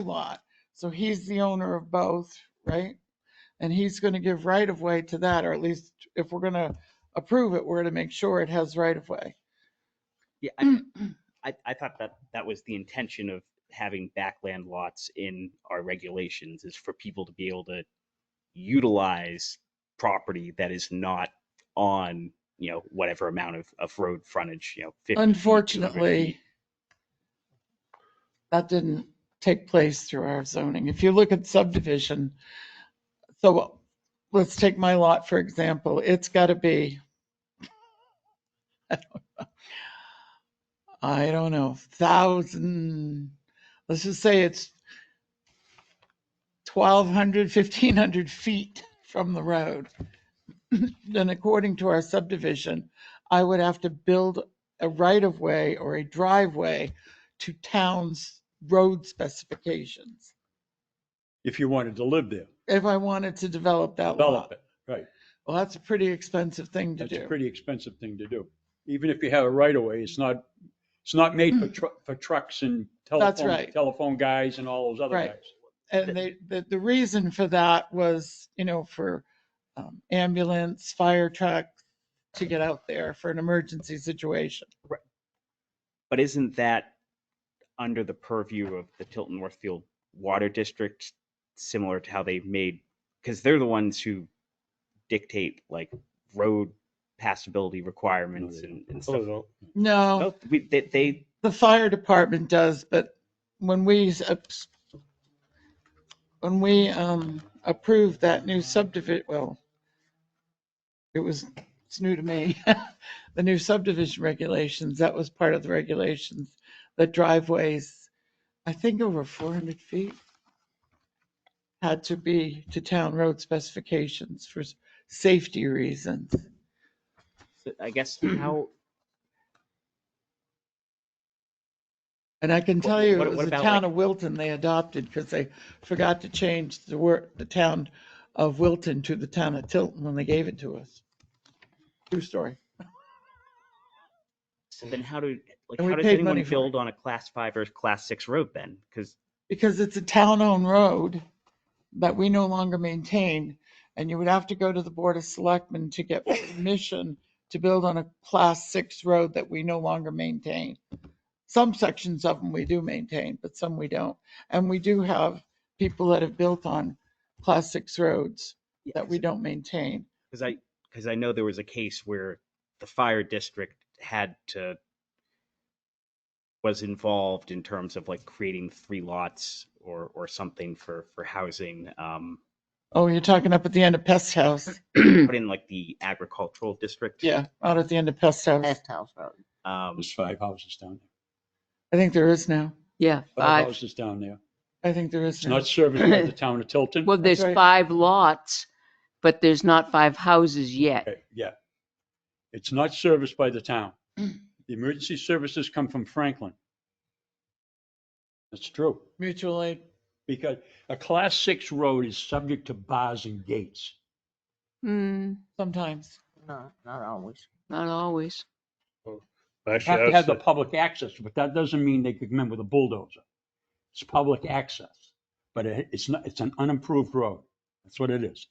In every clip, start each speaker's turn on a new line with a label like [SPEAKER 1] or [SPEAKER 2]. [SPEAKER 1] lot. So he's the owner of both, right? And he's gonna give right of way to that, or at least if we're gonna approve it, we're gonna make sure it has right of way.
[SPEAKER 2] Yeah,
[SPEAKER 1] Mm.
[SPEAKER 2] I, I, I thought that that was the intention of having backland lots in our regulations is for people to be able to utilize property that is not on, you know, whatever amount of, of road frontage, you know. 50 feet, 200
[SPEAKER 1] Unfortunately,
[SPEAKER 2] feet.
[SPEAKER 1] that didn't take place through our zoning. If you look at subdivision, so let's take my lot, for example, it's gotta be, I don't know, thousand, let's just say it's 1,200, 1,500 feet from the road. Then according to our subdivision, I would have to build a right-of-way or a driveway to town's road specifications
[SPEAKER 3] if you wanted to live there,
[SPEAKER 1] if I wanted to develop that
[SPEAKER 3] develop
[SPEAKER 1] lot.
[SPEAKER 3] it. Right.
[SPEAKER 1] Well, that's a pretty expensive thing to
[SPEAKER 3] That's a
[SPEAKER 1] do.
[SPEAKER 3] pretty expensive thing to do. Even if you have a right of way, it's not, it's not made for truck, for trucks and
[SPEAKER 1] That's
[SPEAKER 3] telephone,
[SPEAKER 1] right.
[SPEAKER 3] telephone guys and all those other
[SPEAKER 1] Right.
[SPEAKER 3] guys.
[SPEAKER 1] And they, the, the reason for that was, you know, for um, ambulance, fire truck to get out there for an emergency situation.
[SPEAKER 2] But isn't that under the purview of the Tilton Northfield Water District, similar to how they made, because they're the ones who dictate like road passability requirements and,
[SPEAKER 3] Oh,
[SPEAKER 2] and stuff.
[SPEAKER 1] No,
[SPEAKER 2] No, we, they, they,
[SPEAKER 1] the fire department does, but when we, s- ups- when we um, approved that new subdivision, well, it was, it's new to me, the new subdivision regulations, that was part of the regulations, that driveways, I think over 400 feet, had to be to town road specifications for s- safety reasons.
[SPEAKER 2] so I guess how,
[SPEAKER 1] And I can
[SPEAKER 2] What-
[SPEAKER 1] tell you,
[SPEAKER 2] what-
[SPEAKER 1] it
[SPEAKER 2] what
[SPEAKER 1] was the
[SPEAKER 2] about,
[SPEAKER 1] town
[SPEAKER 2] like-
[SPEAKER 1] of Wilton they adopted because they forgot to change the word, the town of Wilton to the town of Tilton when they gave it to us. True story.
[SPEAKER 2] so then how do, like,
[SPEAKER 1] And we
[SPEAKER 2] how does
[SPEAKER 1] paid
[SPEAKER 2] anyone
[SPEAKER 1] money for it.
[SPEAKER 2] build on a class five or class six road then? Because
[SPEAKER 1] Because it's a town-owned road that we no longer maintain. And you would have to go to the Board of Selectmen to get permission to build on a class six road that we no longer maintain. Some sections of them we do maintain, but some we don't. And we do have people that have built on class six roads. that we don't maintain.
[SPEAKER 2] Because I, because I know there was a case where the fire district had to, was involved in terms of like creating three lots or, or something for, for housing. um,
[SPEAKER 1] Oh, you're talking up at the end of Pest House.
[SPEAKER 2] Put in like the agricultural district.
[SPEAKER 1] Yeah, out at the end of Pest House.
[SPEAKER 4] Pest House Road.
[SPEAKER 2] Um,
[SPEAKER 3] There's five houses down
[SPEAKER 1] I think there is now.
[SPEAKER 5] Yeah,
[SPEAKER 3] there. Five
[SPEAKER 5] five.
[SPEAKER 3] houses down there.
[SPEAKER 1] I think there is
[SPEAKER 3] It's
[SPEAKER 1] now.
[SPEAKER 3] not serviced by the town of Tilton.
[SPEAKER 5] Well,
[SPEAKER 1] That's
[SPEAKER 5] there's
[SPEAKER 1] right.
[SPEAKER 5] five lots, but there's not five houses yet.
[SPEAKER 3] Okay, Yeah. It's not serviced by the town. The emergency services come from Franklin. That's true.
[SPEAKER 1] Mutual aid.
[SPEAKER 3] Because a class six road is subject to bars and gates.
[SPEAKER 5] Hmm,
[SPEAKER 1] Sometimes.
[SPEAKER 4] No, not always.
[SPEAKER 5] not always.
[SPEAKER 3] You have
[SPEAKER 6] Actually,
[SPEAKER 3] to have
[SPEAKER 6] that's,
[SPEAKER 3] the
[SPEAKER 6] the-
[SPEAKER 3] public access, but that doesn't mean they could come in with a bulldozer. It's public access, but it- it's not, it's an unimproved road. That's what it is.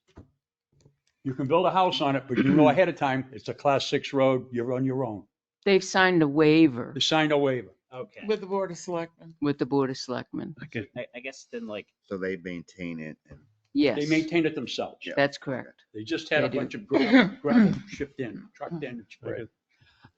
[SPEAKER 3] You can build a house on it, but you know ahead of time, it's a class six road, you're on your own.
[SPEAKER 5] They've signed a waiver
[SPEAKER 3] You signed a waiver.
[SPEAKER 2] okay.
[SPEAKER 1] With the Board of Selectmen.
[SPEAKER 5] with the Board of Selectmen.
[SPEAKER 2] I, I guess then like,
[SPEAKER 6] so they maintain it and
[SPEAKER 3] They
[SPEAKER 5] Yes,
[SPEAKER 3] maintained it themselves.
[SPEAKER 6] Yeah.
[SPEAKER 5] that's correct.
[SPEAKER 3] They just had a
[SPEAKER 5] They do.
[SPEAKER 3] bunch of gravel gravel shipped in, trucked in. and spread it.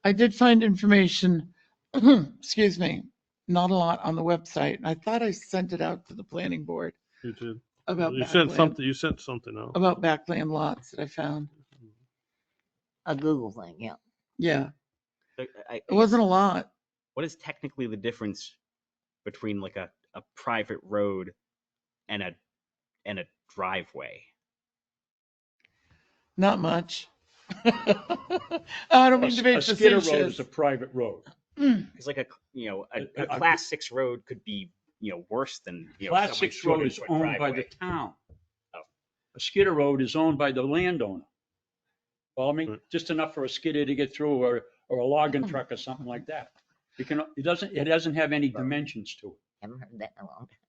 [SPEAKER 1] I did find information, excuse me, not a lot on the website. and I thought I sent it out to the planning board
[SPEAKER 6] you did.
[SPEAKER 1] about
[SPEAKER 6] You sent
[SPEAKER 1] backland,
[SPEAKER 6] something, you sent something out.
[SPEAKER 1] about backland lots that I found.
[SPEAKER 4] A Google thing, yeah.
[SPEAKER 1] Yeah,
[SPEAKER 2] I- I- I
[SPEAKER 1] it
[SPEAKER 2] guess-
[SPEAKER 1] wasn't a lot.
[SPEAKER 2] what is technically the difference between like a, a private road and a and a driveway?
[SPEAKER 1] Not much. I don't mean to
[SPEAKER 3] A
[SPEAKER 1] be
[SPEAKER 3] skid road
[SPEAKER 1] facetious.
[SPEAKER 3] is a private road.
[SPEAKER 2] Because like a c- you know a, a
[SPEAKER 3] A- a-
[SPEAKER 2] class six road could be you know worse than you know
[SPEAKER 3] Class
[SPEAKER 2] someone's
[SPEAKER 3] six road is
[SPEAKER 2] 200 -foot
[SPEAKER 3] owned by the
[SPEAKER 2] driveway.
[SPEAKER 3] town.
[SPEAKER 2] Oh.
[SPEAKER 3] A skidder road is owned by the landowner. Follow
[SPEAKER 2] Hmm.
[SPEAKER 3] me?
[SPEAKER 6] Right.
[SPEAKER 3] Just enough for a skidder to get through or, or a logging truck or something like that. It can, it doesn't, it doesn't have any dimensions to it.
[SPEAKER 4] Haven't heard that in a long time.